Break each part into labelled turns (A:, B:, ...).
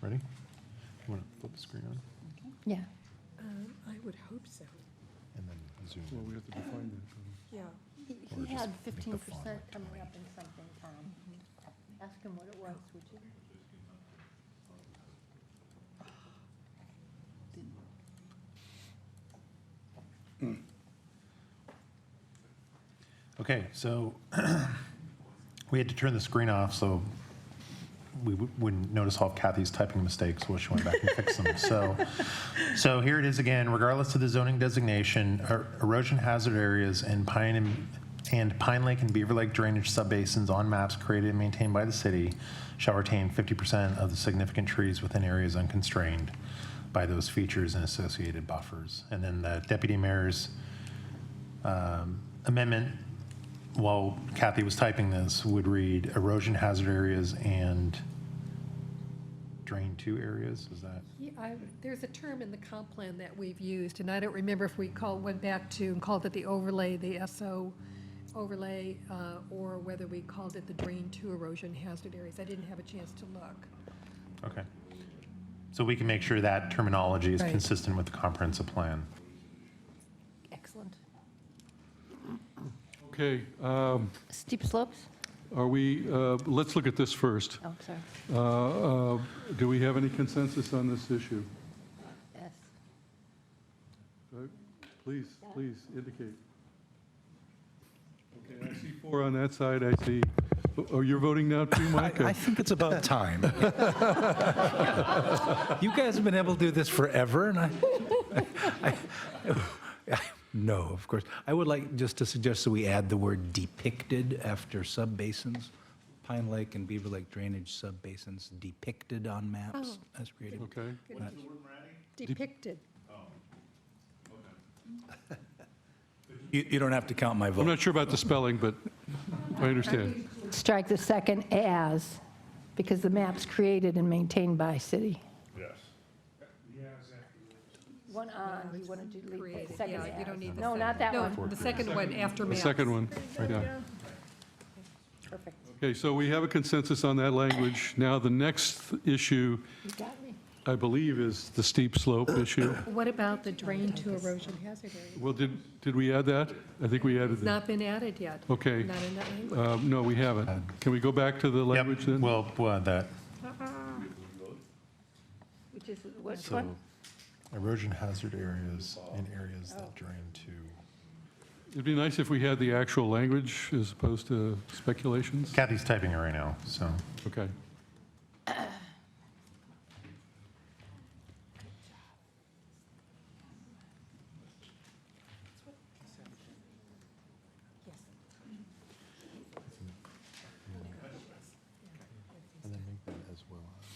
A: Ready? You want to flip the screen on
B: Yeah.
C: Um, I would hope so.
A: and then zoom
D: Well,
A: in?
D: we have to define that.
C: Yeah.
A: Or
B: He
A: just
B: had
A: make
B: fifteen
A: the font
B: percent
A: like
B: coming
A: 20.
B: up in something, Tom. Ask him what it was, would you?
A: Okay, so we had to turn the screen off so we w- wouldn't notice all of Kathy's typing mistakes while she went back and fixed them. So, so here it is again, regardless of the zoning designation, er- erosion hazard areas and Pine and, and Pine Lake and Beaver Lake drainage subbasins on maps created and maintained by the city shall retain 50% of the significant trees within areas unconstrained by those features and associated buffers. And then the deputy mayor's um, amendment, while Kathy was typing this, would read erosion hazard areas and drain two areas, is that?
C: Yeah, I, there's a term in the comp plan that we've used, and I don't remember if we called, went back to and called it the overlay, the SO overlay, uh, or whether we called it the drain to erosion hazard areas. I didn't have a chance to look.
A: Okay. So we can make sure that terminology is
C: Right.
A: consistent with the comprehensive plan.
B: Excellent.
D: Okay, um,
B: Steep slopes?
D: are we, uh, let's look at this first.
B: Oh, sorry.
D: Uh, uh, Do we have any consensus on this issue?
B: Yes.
D: Uh, Please, please indicate. Okay, I see four on that side, I see, oh, you're voting now too, Mike?
E: I think it's about time. you guys have been able to do this forever, and I, I, I- no, of course. I would like just to suggest that we add the word depicted after subbasins. Pine Lake and Beaver Lake drainage subbasins depicted on maps
B: Oh.
E: as created.
D: Okay,
E: That's-
C: Depicted.
E: You, you don't have to count my
D: I'm
E: vote.
D: not sure about the spelling, but I understand.
B: Strike the second as, because the map's created and maintained by city. Yes. One on, you wanted to leave the
C: Created,
B: second
C: yeah, you don't need
B: as.
C: the
B: No, not that
C: No,
B: one.
C: the second one after
D: The
C: maps.
D: second one, yeah.
B: Perfect.
D: Okay, so we have a consensus on that language. Now, the next issue,
B: You got me.
D: I believe, is the steep slope issue.
C: What about the drain to erosion hazard area?
D: Well, did, did we add that? I think we added
C: It's
D: that.
C: not been added yet.
D: Okay.
C: Not in that language.
D: Uh, No, we haven't. Can we go back to the language
A: Yep,
D: then?
A: well, we'll add that.
B: Which is, which
A: So
B: one?
A: erosion hazard areas and areas that drain to.
D: It'd be nice if we had the actual language as opposed to speculations.
A: Kathy's typing it right now, so.
D: Okay.
A: And then make that as well as.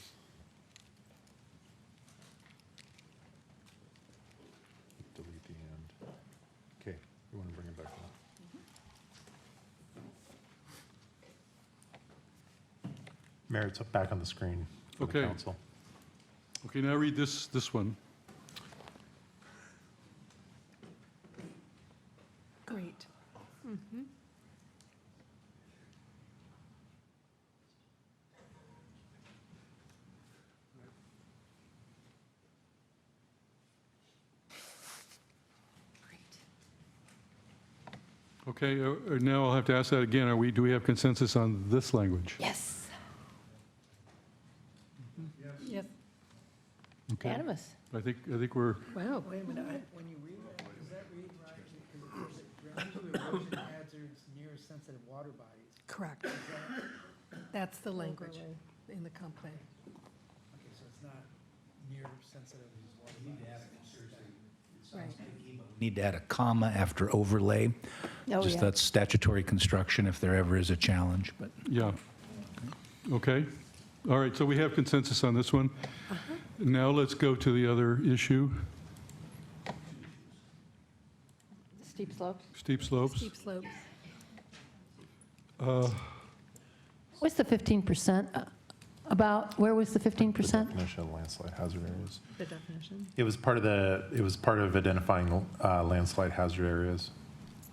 A: Delete the end. Okay, you want to bring it back up? Mayor, it's up back on the screen for the
D: Okay.
A: council.
D: Okay, now read this, this one.
C: Great.
D: Okay, uh, uh, now I'll have to ask that again. Are we, do we have consensus on this language?
B: Yes.
C: Yes.
D: Mm-hmm. Okay.
B: Animus.
D: I think, I think we're,
C: Wow.
F: When you read that, does that read right? Because it says ground to erosion hazards near sensitive water bodies.
C: Correct. That's the language in the comp plan.
F: Okay, so it's not near sensitive water bodies.
C: Right.
E: Need to add a comma after overlay.
B: Oh,
E: Just
B: yeah.
E: that's statutory construction if there ever is a challenge, but.
D: yeah. Okay. All right, so we have consensus on this one. Now let's go to the other issue,
B: Steep slopes.
D: steep slopes.
C: Steep slopes.
D: Uh,
G: What's the 15% uh, about, where was the 15%?
A: Definition of landslide hazard areas.
C: The definition?
A: It was part of the, it was part of identifying uh, landslide hazard areas.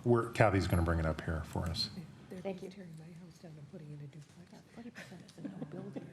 A: We're, Kathy's going to bring it up here for us.
B: Thank you.
C: Terry might.